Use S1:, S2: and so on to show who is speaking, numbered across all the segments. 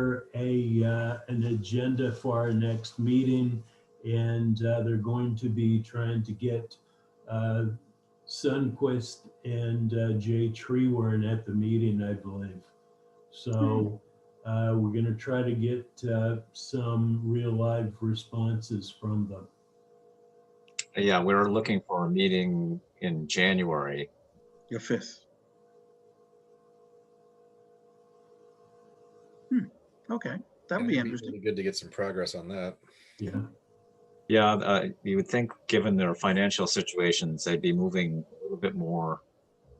S1: together a, uh, an agenda for our next meeting. And uh, they're going to be trying to get uh, Sunquist and uh, Jay Tree weren't at the meeting, I believe. So uh, we're going to try to get uh, some real live responses from them.
S2: Yeah, we were looking for a meeting in January.
S3: Your fifth. Hmm, okay, that would be
S4: It'd
S3: interesting.
S4: really Good to get some progress on that.
S1: Yeah.
S2: Yeah, uh, you would think, given their financial situations, they'd be moving a little bit more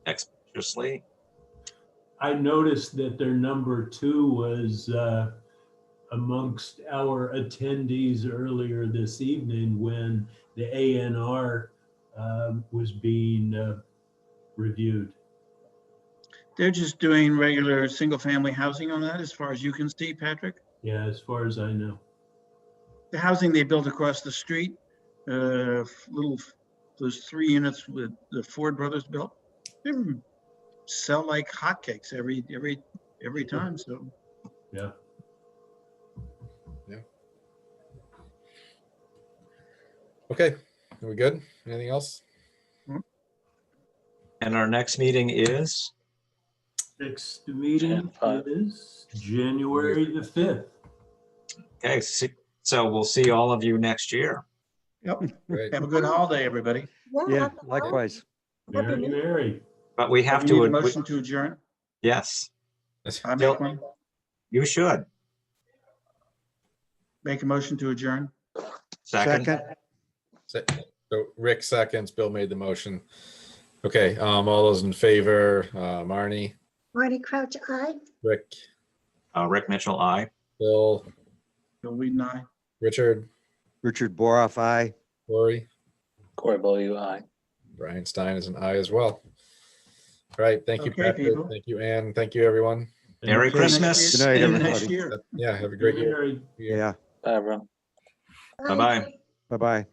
S2: expeditiously.
S1: I noticed that their number two was uh, amongst our attendees earlier this evening when the ANR um, was being uh, reviewed.
S3: They're just doing regular single-family housing on that, as far as you can see, Patrick.
S1: Yeah, as far as I know.
S3: The housing they built across the street, uh, f- little, f- those three units with the Ford brothers built, they were- sell like hotcakes every, every, every time, so.
S1: Yeah.
S4: Okay, are we good? Anything else?
S2: And our next meeting is,
S1: Next
S5: Jan
S1: meeting
S5: five.
S1: is January the 5th.
S2: okay, si- so we'll see all of you next year.
S3: Yep.
S4: Great.
S3: Have a good holiday, everybody.
S6: Yeah,
S7: happy holidays.
S6: likewise.
S7: Happy
S1: Very,
S7: New Year.
S1: very.
S2: But we have
S3: Do you
S2: to,
S3: need a
S2: ad- we-
S3: Motion to adjourn.
S2: yes,
S3: I
S2: Bill.
S3: make one,
S2: you should.
S3: make a motion to adjourn.
S2: Second,
S4: Se- So Rick seconds, Bill made the motion. Okay, um, all those in favor, uh, Marnie,
S6: Marty Crouch, aye.
S4: Rick,
S2: Uh, Rick Mitchell, I.
S4: Bill,
S3: Bill Weeden, aye.
S4: Richard,
S6: Richard Boroff, aye.
S4: Lori,
S5: Corey Bowyer, aye.
S4: Brian Stein is an aye as well. All right, thank you,
S3: Okay,
S4: Patrick.
S3: people.
S4: Thank you, Ann. Thank you, everyone.
S2: Merry
S3: See you next
S2: Christmas.
S3: year.
S6: Good
S3: See
S6: night,
S3: you Next
S6: everybody.
S3: year.
S4: Yeah, have a great year.
S1: Very
S6: Yeah,
S5: Bye, everyone.
S2: Bye-bye.
S6: bye-bye.